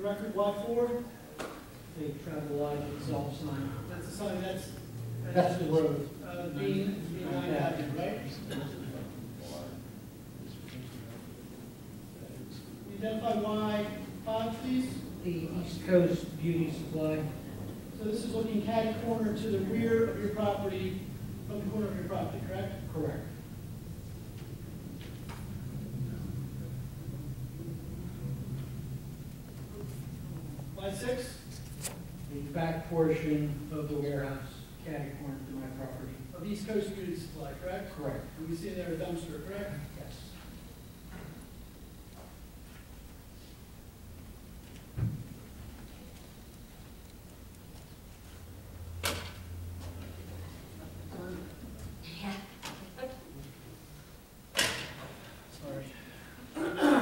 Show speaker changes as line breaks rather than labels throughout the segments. record, why four? The travel light exhaust sign. That's the sign, that's.
That's the road.
Uh, B, B nine Avenue, right? Can you Identify Y five, please.
The East Coast Beauty Supply,
So this is looking catty corner to the rear of your property, from the corner of your property, correct?
correct.
By six,
The back portion of the warehouse, catty corner to my property,
of East Coast Beauty Supply, correct?
correct,
And we see there a dumpster, correct?
yes.
Sorry.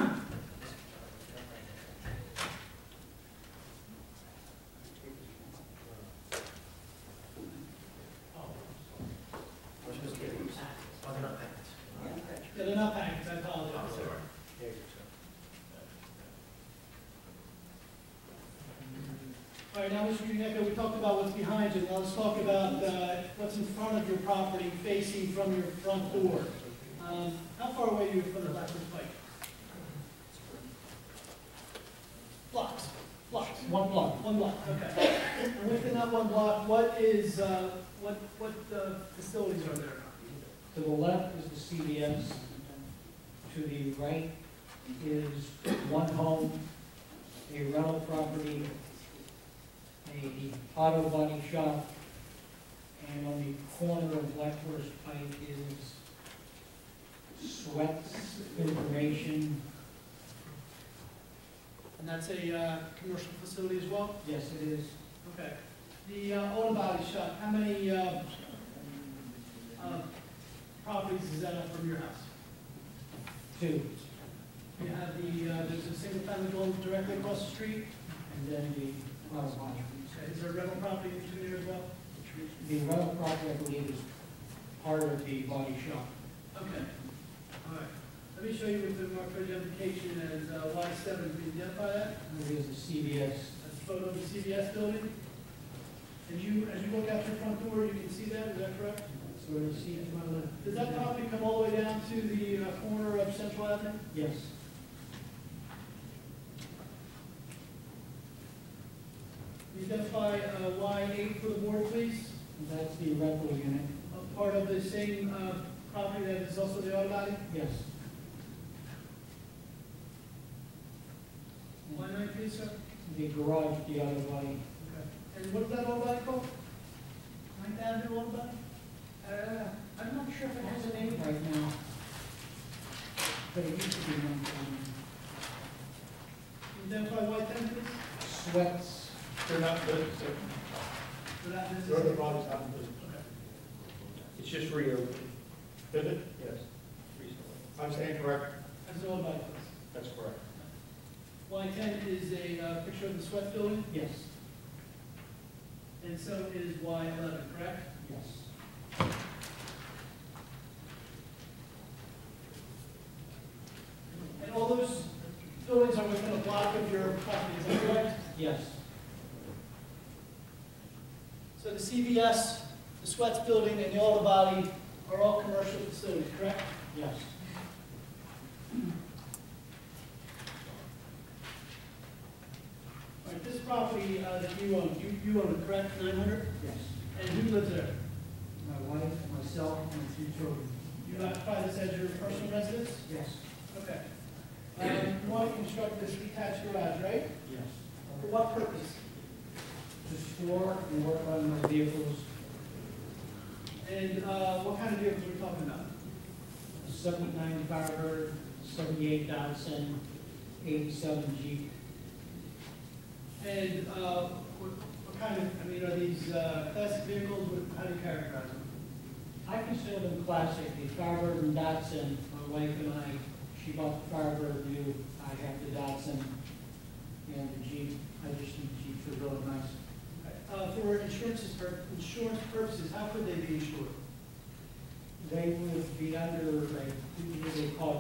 Yeah, they're not packets, I apologize, sir. All right, now, Mr. Udeco, we talked about what's behind you, now let's talk about uh, what's in front of your property facing from your front door. Um, How far away are you from the Blackbird Pike? Blocks, blocks.
One block,
One block, okay. And within that one block, what is, uh, what, what uh, facilities are there?
to the left is the CVS, to the right is one home, a rental property, a auto body shop, and on the corner of Blackforest Pike is Sweats Information.
And that's a uh, commercial facility as well?
Yes, it is.
Okay. The uh, auto body shop, how many uh, uh, properties is that up from your house?
Two,
You have the, uh, there's a single family home directly across the street?
and then the auto body.
Okay, Is there a rental property in there as well?
The rental property, I believe, is part of the body shop.
Okay, all right. Let me show you with the marked identification as uh, Y7, can you identify that?
There is the CVS.
That's a photo of the CVS building. As you, as you look out your front door, you can see that, is that correct?
So the C to my left.
Does that property come all the way down to the uh, corner of Central Avenue?
Yes.
Can you Identify uh, Y8 for the board, please,
That's the rental unit.
a part of the same uh, property that is also the auto body.
Yes. And
Y9, please, sir.
The garage, the auto body.
Okay. And what is that auto body called? Ninth Avenue auto body?
Uh, I'm not sure if it has a name right now. But it used to be one time.
Can you Identify Y10, please,
Sweats.
They're not good,
for that
they're, they're the
business.
products out of business.
It's just reopened.
Did it?
Yes. Recently.
I'm saying correct?
That's an auto body, please.
That's correct.
Y10 is a uh, picture of the sweat building,
Yes,
and so is Y11, correct?
yes.
And all those buildings are within a block of your property, is that correct?
Yes,
So the CVS, the Sweats Building, and the Auto Body are all commercial facilities, correct?
yes.
All right, this property uh, that you own, you, you own it, correct, nine hundred?
Yes.
And who lives there?
My wife, myself, and my two children.
You occupy this as your personal residence?
Yes.
Okay. Um, you want to construct this detached garage, right?
Yes.
For what purpose?
To store and work on my vehicles,
And, uh, what kind of vehicles are we talking about?
a 79 Firebird, 78 Datsun, 87 Jeep.
And, uh, what, what kind of, I mean, are these, uh, classic vehicles, What- how do you characterize them?
I consider them classic, the Firebird and Datsun, my wife and I, she bought the Firebird new, I have the Datsun, and the Jeep, I just think Jeeps are really nice.
Uh, For insurances, for insurance purposes, how could they be insured?
They would be under, a what do they call it,